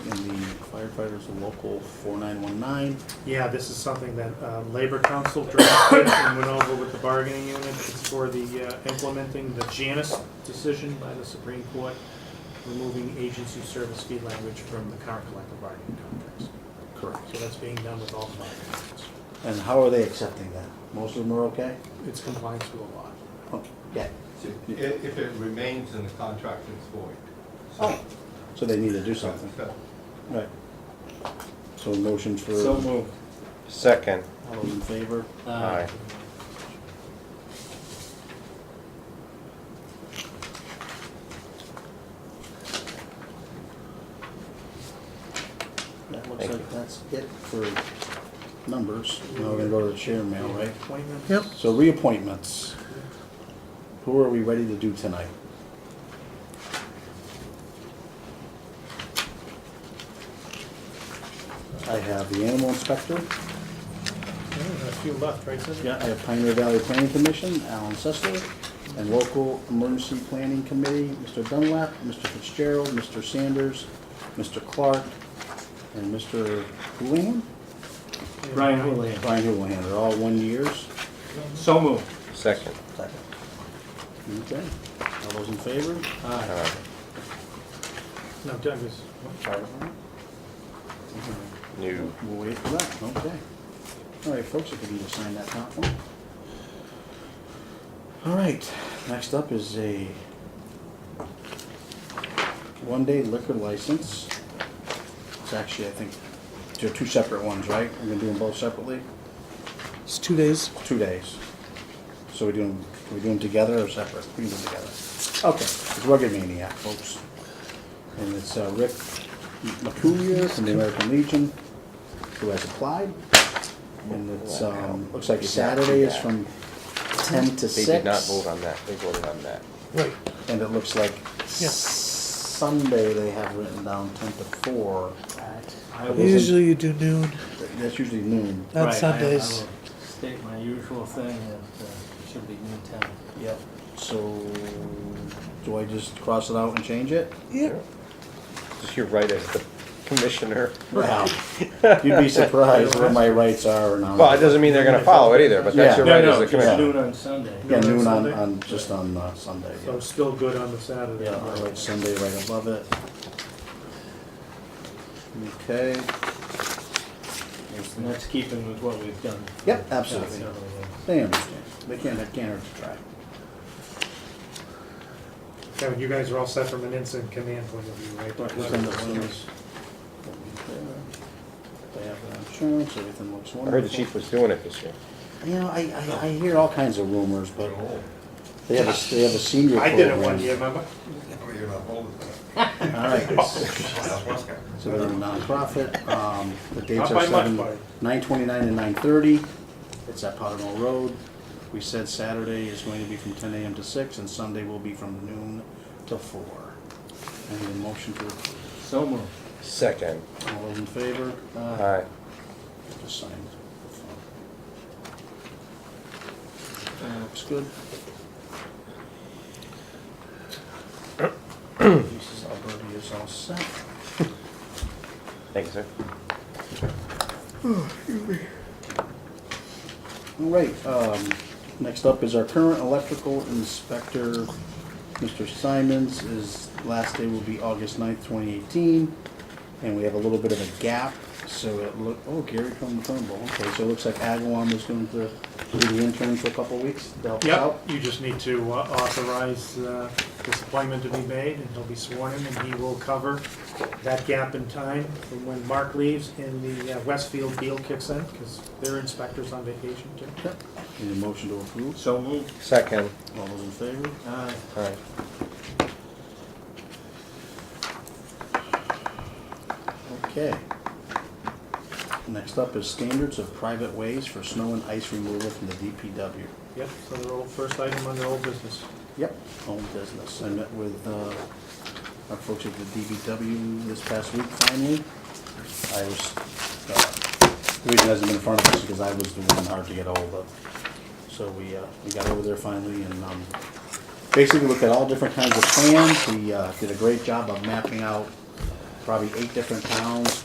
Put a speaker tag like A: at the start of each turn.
A: firefighters and local 4919.
B: Yeah, this is something that uh, Labor Council drafted and went over with the bargaining unit. It's for the uh, implementing the Janus decision by the Supreme Court, removing agency service fee language from the current collective bargaining contracts.
A: Correct.
B: So that's being done with all bargaining units.
A: And how are they accepting that? Most of them are okay?
B: It's compliance with the law.
A: Okay. Yeah.
C: So i- If, if it remains in the contract, it's void.
A: Oh. So they need to do
C: So-
A: something.
C: so-
A: Right. So motion for,
D: So
A: all
D: moved. Second.
A: those in favor?
D: Aye.
A: That looks
D: Thank
A: like that's it for numbers. Now we're gonna go to the chair mail, right?
B: Appointments?
E: Yep.
A: So reappointments. Who are we ready to do tonight? I have the animal inspector.
B: Yeah, A few left, right, Cindy?
A: Yeah, I have Pioneer Valley Planning Commission, Alan Sessler, and Local Emergency Planning Committee, Mr. Dunlap, Mr. Fitzgerald, Mr. Sanders, Mr. Clark, and Mr. Houlihan?
B: Brian Houlihan.
A: Brian Houlihan, they're all one years.
B: So moved.
D: Second.
A: Second. Okay, all those in favor?
B: Aye.
D: Aye.
B: No, Doug is,
D: New.
A: We'll wait for that, okay. All right, folks, if you can just sign that top one. All right, next up is a one-day liquor license. It's actually, I think, they're two separate ones, right? We're gonna do them both separately?
E: It's two days.
A: Two days. So we do them, we do them together or separate? We can do them together. Okay, it's Rugged Maniac, folks. And it's uh, Rick McCoolier from the American Legion, who has applied. And it's, um, looks like Saturday is from ten to
D: They
A: six.
D: did not vote on that. They voted on that.
E: Right.
A: And it looks like
E: Yeah.
A: Sunday they have written down ten to four.
F: I
A: It
F: will
A: wasn't-
E: Usually you do noon,
A: That's usually noon.
E: not
F: right, I-
E: Sundays.
F: I will State my usual thing that uh, it should be noon time.
A: Yep. So, do I just cross it out and change it?
E: yeah.
D: You're right as the commissioner.
A: Wow. You'd be surprised what my rights are or not.
D: Well, it doesn't mean they're gonna follow it either, but that's your
A: Oh. Yeah.
D: right
F: No,
D: as
F: no,
D: the
F: just
D: commissioner.
F: noon on Sunday.
A: Yeah,
B: Noon on
A: noon on,
B: Sunday?
A: on, just on uh, Sunday.
B: so
A: yeah.
B: still good on the Saturday.
A: Yeah, I write Sunday right above it. Okay,
F: And that's keeping with what we've done.
A: Yep, absolutely.
F: Yeah, so, uh,
A: they understand. They can't, they can't hurt to try.
B: Kevin, you guys are all set from an incident command point of view, right?
A: Just send those to us. They have their insurance, everything looks
D: I
A: wonderful.
D: heard the chief was doing it this year.
A: You know, I, I, I hear all kinds of rumors, but
C: You're old.
A: they have a, they have a senior
B: Oh. I
A: program.
B: did it one year, remember?
C: Oh, you're not old enough.
A: All right. So they're a nonprofit, um, the dates
B: Not
A: are
B: by much,
A: seven,
B: buddy.
A: nine twenty-nine and nine thirty. It's at Powder Mill Road. We said Saturday is going to be from ten AM to six, and Sunday will be from noon to four. I need a motion to approve.
F: So moved.
D: Second.
A: All those in favor?
D: Aye.
A: Just sign. Uh, Looks good. Mrs. Alberti is all set.
D: Thank you, sir.
A: All right, um, next up is our current electrical inspector, Mr. Simons. His last day will be August 9th, twenty eighteen. And we have a little bit of a gap, so it look, oh, Gary from Turnbull, okay, so it looks like Agawam is going to be the intern for a couple of weeks to help us out.
B: Yep, you just need to uh, authorize uh, this appointment to be made, and he'll be sworn in, and he will cover that gap in time from when Mark leaves and the uh, Westfield deal kicks in, because their inspector's on vacation too.
A: Yep. Need a motion to approve?
F: So moved. Uh,
D: Second.
A: All those in favor?
F: Aye.
D: Aye.
A: Okay. Next up is standards of private ways for snow and ice removal from the DPW.
B: Yep, so their old, first item on their old business.
A: Yep, home business. I met with uh, our folks at the DBW this past week finally. I was, uh, the reason it hasn't been in front of us is because I was the one hard to get hold of. So we, uh, we got over there finally and um, basically looked at all different kinds of plans. We uh, did a great job of mapping out probably eight different towns,